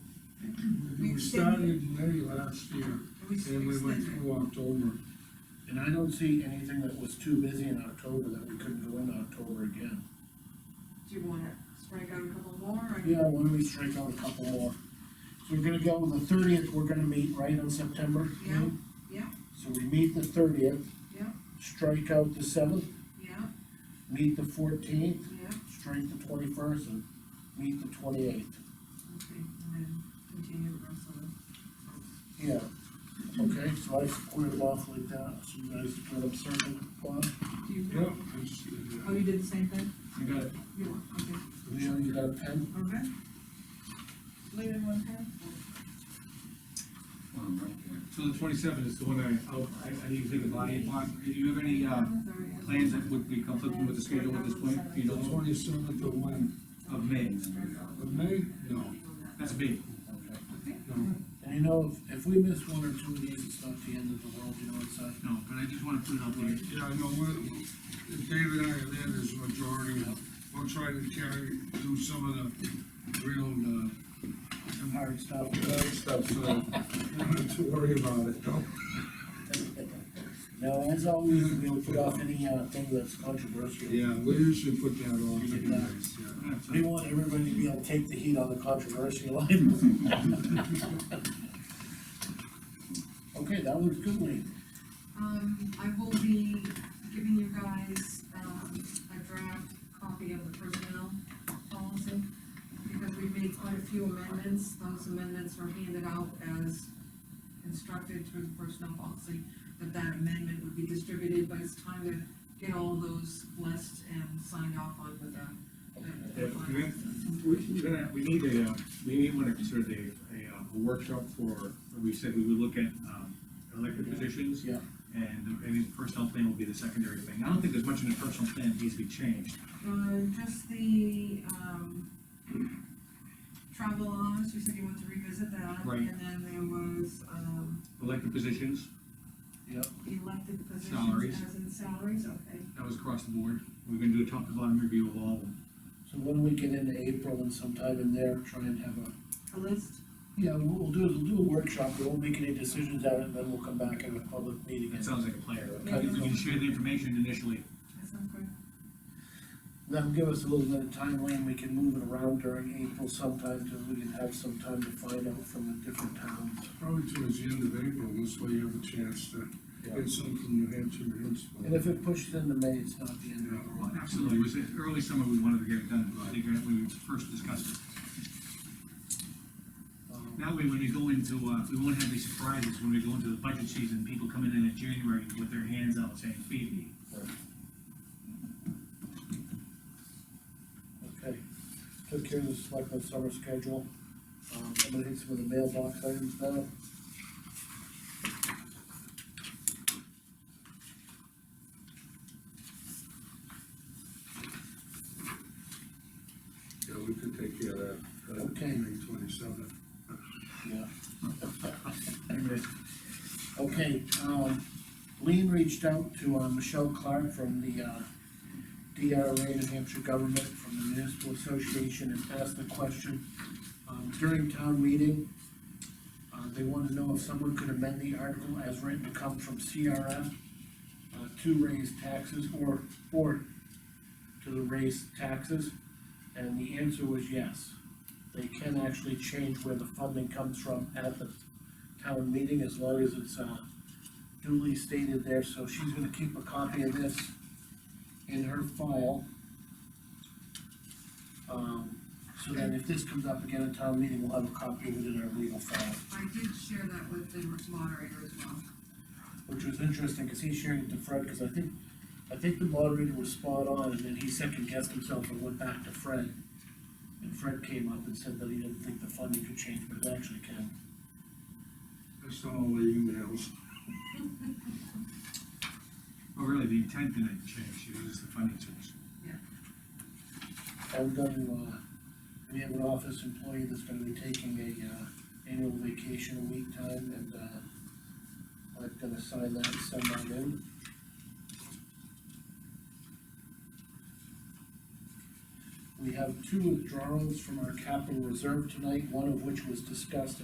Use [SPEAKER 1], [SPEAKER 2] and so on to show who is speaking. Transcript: [SPEAKER 1] started May last year,
[SPEAKER 2] We
[SPEAKER 1] and we went
[SPEAKER 2] extended.
[SPEAKER 1] through October.
[SPEAKER 3] And I don't see anything that was too busy in October that we couldn't go in October again.
[SPEAKER 2] Do you wanna strike out a couple more, or?
[SPEAKER 3] Yeah, why don't we strike out a couple more? So we're gonna go with the thirtieth, we're gonna meet right on September?
[SPEAKER 2] Yeah, yeah.
[SPEAKER 3] So we meet the thirtieth.
[SPEAKER 2] Yeah.
[SPEAKER 3] Strike out the seventh,
[SPEAKER 2] Yeah,
[SPEAKER 3] meet the fourteenth,
[SPEAKER 2] yeah,
[SPEAKER 3] strike the twenty-first, and meet the twenty-eighth.
[SPEAKER 2] okay, and then continue the rest of it.
[SPEAKER 3] Yeah. Okay, so I squared it off like that, so you guys put up circle plot.
[SPEAKER 2] Do you?
[SPEAKER 1] Yep, I just did
[SPEAKER 2] Oh,
[SPEAKER 1] that.
[SPEAKER 2] you did the same thing?
[SPEAKER 3] You got it.
[SPEAKER 2] You want, okay,
[SPEAKER 3] Leo, you got a pen?
[SPEAKER 2] okay. Leave it one hand?
[SPEAKER 4] Um, right there. So the twenty-seventh is the one I, oh, I, I need to take a body upon, do you have any, uh, plans that would be conflicting with the schedule at this point, you
[SPEAKER 1] The
[SPEAKER 4] know,
[SPEAKER 1] twenty-seventh of when,
[SPEAKER 4] of May?
[SPEAKER 1] of May? No,
[SPEAKER 4] That's big.
[SPEAKER 1] no.
[SPEAKER 3] And you know, if, if we miss one or two of these, it's not the end of the world, you know, it's not.
[SPEAKER 4] No, but I just wanna put it out there.
[SPEAKER 1] Yeah, no, we're, if Dave and I are there, there's a majority, we'll try to carry, do some of the real, uh,
[SPEAKER 3] Some hard stuff.
[SPEAKER 1] bad stuff, so you don't have to worry about it, no?
[SPEAKER 3] Now, as always, we'll put off any, uh, thing that's controversial.
[SPEAKER 1] Yeah, we usually put that off,
[SPEAKER 3] Get that.
[SPEAKER 1] yeah.
[SPEAKER 3] We want everybody to be able to take the heat on the controversial items. Okay, that was good, Lee.
[SPEAKER 2] Um, I will be giving you guys, um, a draft copy of the personnel policy, because we made quite a few amendments, those amendments were handed out as instructed through the personnel policy, but that amendment would be distributed, but it's time to get all those blessed and signed off on with the.
[SPEAKER 4] Yeah, We, we're gonna- we need a, uh, we may wanna consider the, a, uh, a workshop for, we said we would look at, um, elected positions.
[SPEAKER 3] Yeah.
[SPEAKER 4] And, and the personnel plan will be the secondary thing. I don't think there's much in the personal plan that needs to be changed.
[SPEAKER 2] Uh, just the, um, travel allowance, you said you want to revisit that.
[SPEAKER 4] Right.
[SPEAKER 2] And then there was, um,
[SPEAKER 4] Elected positions,
[SPEAKER 3] Yep,
[SPEAKER 2] elected positions
[SPEAKER 4] Salaries.
[SPEAKER 2] as in salaries, okay.
[SPEAKER 4] that was across the board. We're gonna do a top to bottom review of all of them.
[SPEAKER 3] so when we get into April and sometime in there, try and have
[SPEAKER 2] A
[SPEAKER 3] a,
[SPEAKER 2] list,
[SPEAKER 3] yeah, what we'll do is we'll do a workshop, we won't make any decisions out of it, then we'll come back in a public meeting.
[SPEAKER 4] That
[SPEAKER 3] and-
[SPEAKER 4] sounds like a plan.
[SPEAKER 2] Maybe.
[SPEAKER 4] We can share the information initially.
[SPEAKER 2] that sounds good.
[SPEAKER 3] That'll give us a little bit of time, Lee, and we can move it around during April sometime, till we can have some time to find out from the different towns.
[SPEAKER 1] Probably towards the end of April, this way you have a chance to get some from New Hampshire municipal.
[SPEAKER 3] And if it pushes into May, it's not the end of the world.
[SPEAKER 4] Absolutely, it was early summer, we wanted to get it done, I think that we first discussed it.
[SPEAKER 3] Um,
[SPEAKER 4] That way, when we go into, uh, we won't have these surprises when we go into the budget season, people coming in in January with their hands out saying, feed me.
[SPEAKER 3] Okay, took care of the selectmen's summer schedule. Um, I'm gonna hit some of the mailbox items now.
[SPEAKER 1] Yeah, we could take care of that. uh,
[SPEAKER 3] Okay.
[SPEAKER 1] May twenty-seventh.
[SPEAKER 3] Yeah. Okay, um, Lean reached out to, uh Michelle Clark from the, uh, DRA, New Hampshire Government, from the Municipal Association, and asked the question, um, during town meeting, uh, they wanted to know if someone could amend the article as written to come from CRF, uh, to raise taxes, or, or to raise taxes, and the answer was yes. They can actually change where the funding comes from at the town meeting as long as it's uh, duly stated there, so she's gonna keep a copy of this in her file. Um, so then if this comes up again at town meeting, we'll have a copy of it in our legal file,
[SPEAKER 2] I did share that with the moderator as well.
[SPEAKER 3] which was interesting, cause he shared it to Fred, cause I think, I think the moderator was spot on, and then he second guessed himself and went back to Fred. And Fred came up and said that he didn't think the funding could change, but it actually can.
[SPEAKER 1] That's all the emails.
[SPEAKER 4] Well, really, the intent didn't change, it was just the funding source.
[SPEAKER 3] I'm going to, uh, we have an office employee that's gonna be taking a, uh, annual vacation a week time, and, uh, I'm gonna sign that and send that in. We have two withdrawals from our capital reserve tonight, one of which was discussed